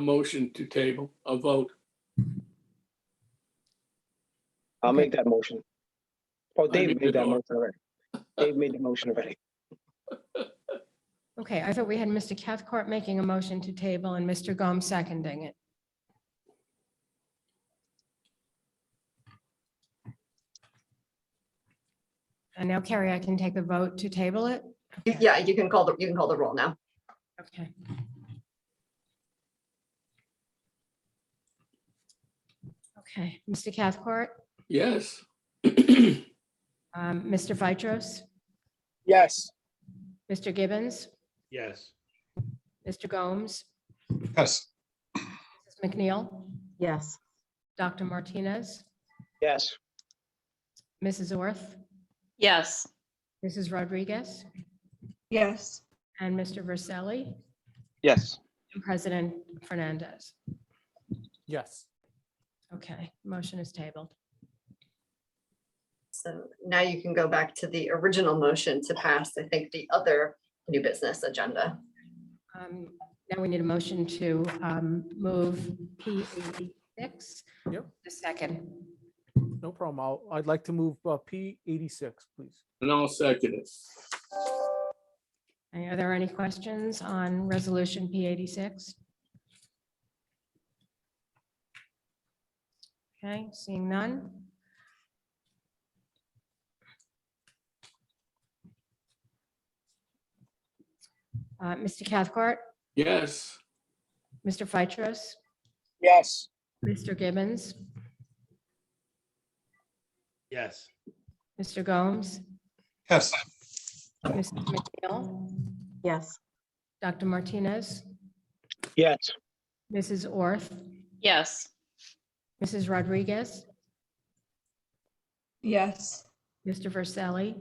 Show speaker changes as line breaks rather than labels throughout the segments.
a motion to table, a vote.
I'll
Okay.
make that motion. Oh,
mean,
Dave made that
no.
motion already. Dave made the motion already.
Okay, I thought we had Mr. Cathcart making a motion to table and Mr. Gomes seconding it. And now Carrie, I can take the vote to table it?
You- Yeah, you can call the, you can call the roll now.
Okay. Okay, Mr. Cathcart,
Yes.
um, Mr. Vitros,
Yes.
Mr. Gibbons,
Yes.
Mr. Gomes,
Yes.
Mrs. McNeil,
yes,
Dr. Martinez,
Yes.
Mrs. Orth,
yes,
Mrs. Rodriguez,
yes,
and Mr. Verselli,
Yes.
and President Fernandez.
yes.
Okay, motion is tabled.
So now you can go back to the original motion to pass, I think, the other new business agenda.
Um, Now we need a motion to um, move P eighty-six.
Yep.
The second.
No problem. I'll, I'd like to move uh, P eighty-six, please.
And I'll second it.
Are there any questions on resolution P eighty-six? Okay, seeing none. Uh, Mr. Cathcart,
Yes.
Mr. Phytros,
Yes.
Mr. Gibbons,
Yes.
Mr. Gomes,
Yes.
Mrs. McNeil,
yes.
Dr. Martinez,
Yes.
Mrs. Orth,
yes.
Mrs. Rodriguez,
yes.
Mr. Verselli,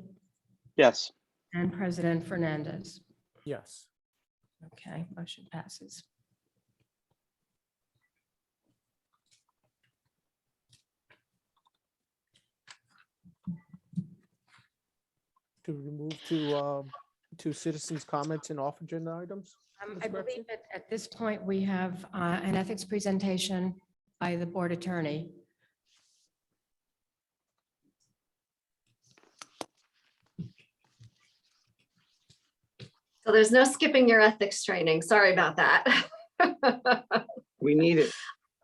Yes.
and President Fernandez.
Yes.
Okay, motion passes.
To remove to, um, to citizens' comments and off agenda items?
Um, I
Ms.
believe
Gretchen?
that at this point, we have uh, an ethics presentation by the board attorney.
So there's no skipping your ethics training. Sorry about that.
We need it.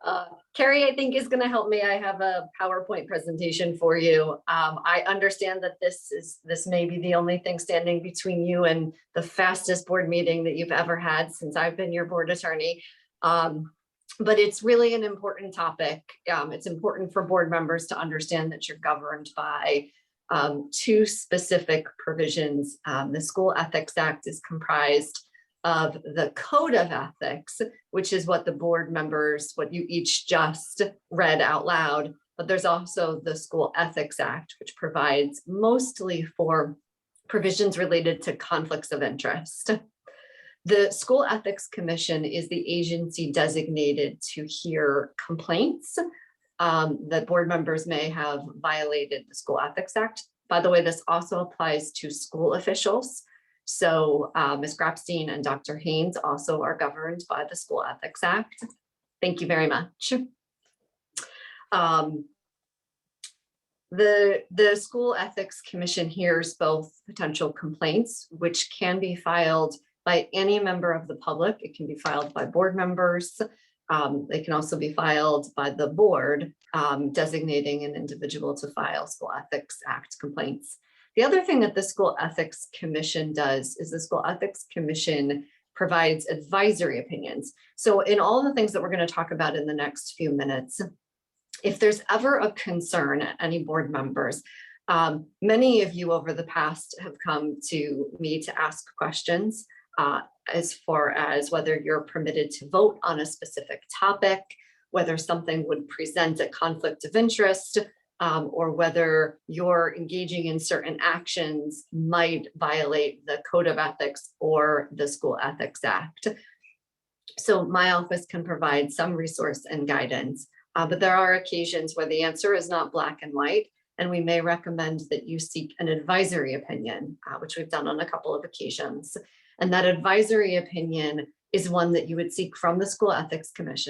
Uh, Carrie, I think is going to help me. I have a PowerPoint presentation for you. Um, I understand that this is, this may be the only thing standing between you and the fastest board meeting that you've ever had since I've been your board attorney. Um, but it's really an important topic. Um, it's important for board members to understand that you're governed by um, two specific provisions. Um, the School Ethics Act is comprised of the Code of Ethics, which is what the board members, what you each just read out loud. But there's also the School Ethics Act, which provides mostly for provisions related to conflicts of interest. The School Ethics Commission is the agency designated to hear complaints um, that board members may have violated the School Ethics Act. By the way, this also applies to school officials. So uh, Ms. Grabstein and Dr. Haynes also are governed by the School Ethics Act. Thank you very much. Um, The, the School Ethics Commission hears both potential complaints, which can be filed by any member of the public. It can be filed by board members. Um, They can also be filed by the board um, designating an individual to file School Ethics Act complaints. The other thing that the School Ethics Commission does is the School Ethics Commission provides advisory opinions. So in all the things that we're going to talk about in the next few minutes, if there's ever a concern at any board members, um, many of you over the past have come to me to ask questions uh, as far as whether you're permitted to vote on a specific topic, whether something would present a conflict of interest, um, or whether you're engaging in certain actions might violate the code of ethics or the school ethics act. So my office can provide some resource and guidance, uh, but there are occasions where the answer is not black and white. And we may recommend that you seek an advisory opinion, uh, which we've done on a couple of occasions. And that advisory opinion is one that you would seek from the School Ethics Commission.